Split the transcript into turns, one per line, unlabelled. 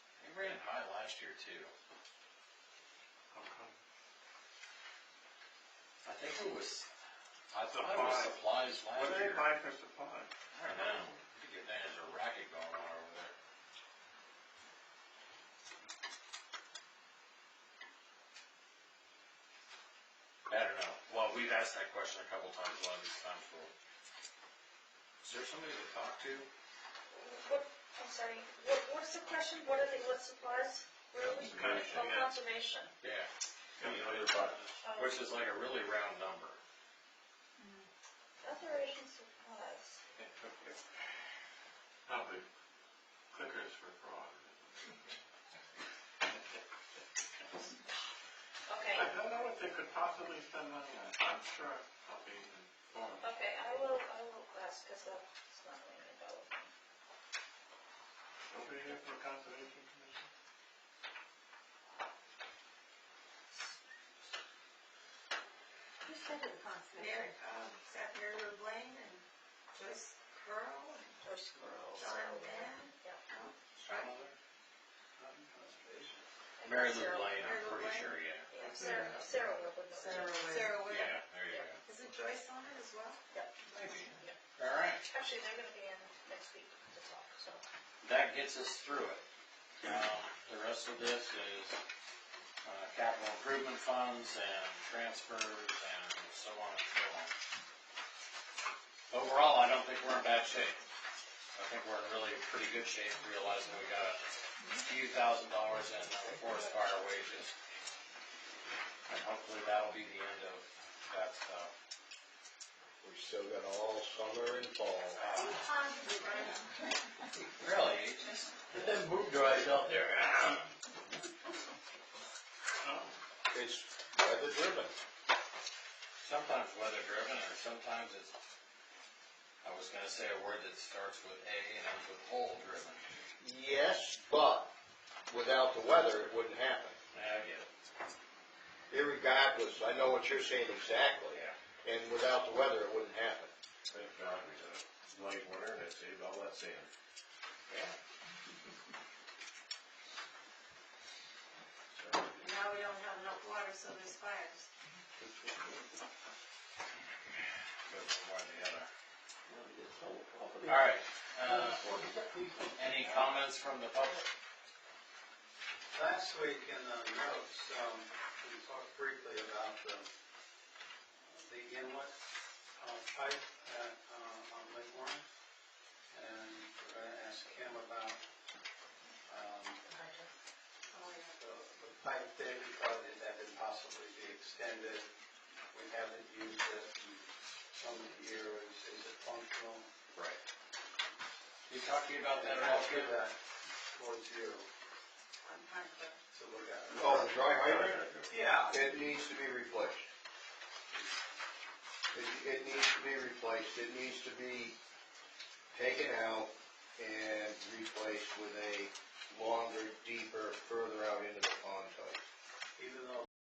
last year too.
How come?
I think it was, I thought it was
Supplies.
supplies
What
last
do
year.
they buy for supplies?
I don't know. I think your dad has a racket going on over there. I don't know. Well, we've asked that question a couple times, a lot of these times for. Is there somebody to talk to?
What, I'm sorry, what, what's the question, what are the, what supplies? Really?
Conservation,
Oh,
yeah.
conservation.
Yeah,
Oh,
which is like a really round number.
Operation supplies.
How big? Clickers for fraud.
Okay,
I don't know what they could possibly spend money on. I'm sure I'll be informed.
okay, I will, I will ask, cause that's not really about.
Nobody here for conservation commission?
Who sent the concept?
Mary, um, Seth Mary Lou Blaine and Joyce Pearl and
Or squirrels.
John Mann.
Mary Lou Blaine, I'm
Mary Lou
pretty
Blaine?
sure, yeah.
Yeah, Sarah, Sarah would know.
Sarah Ware.
Sarah would.
Yeah, there you go.
Isn't Joyce on it as well?
Maybe. All right.
Actually, they're gonna be in next week to talk, so.
that gets us through it. Now, the rest of this is uh, capital improvement funds and transfers and so on and so on. Overall, I don't think we're in bad shape. I think we're in really pretty good shape, realizing we got a few thousand dollars in forest fire wages. And hopefully that'll be the end of that stuff.
We still got all summer and fall.
Uh,
Right.
Really, just get them boot dries out there.
It's weather driven.
sometimes weather driven or sometimes it's, I was gonna say a word that starts with A and ends with hole driven.
Yes, but without the weather, it wouldn't happen.
I get it.
Irregardless, I know what you're saying exactly,
Yeah.
and without the weather, it wouldn't happen.
Thank God we did it. Late winter, and it saved all that sand.
Yeah.
Now we don't have enough water, so there's fires.
Good for one or the other. Alright, uh, any comments from the public?
Last week in the notes, um, we talked briefly about the, the inlet uh, pipe at, uh, on Lake Warren. And we're gonna ask him about, um,
Oh, yeah.
the, the pipe there because it had been possibly be extended. We haven't used it in some years. Is it functional?
Right. We talked to you about that
And
all
I'll give
good?
that towards you
I'm trying to.
to look at.
Oh, the dry hydrant?
Yeah.
It needs to be replaced. It, it needs to be replaced, it needs to be taken out and replaced with a longer, deep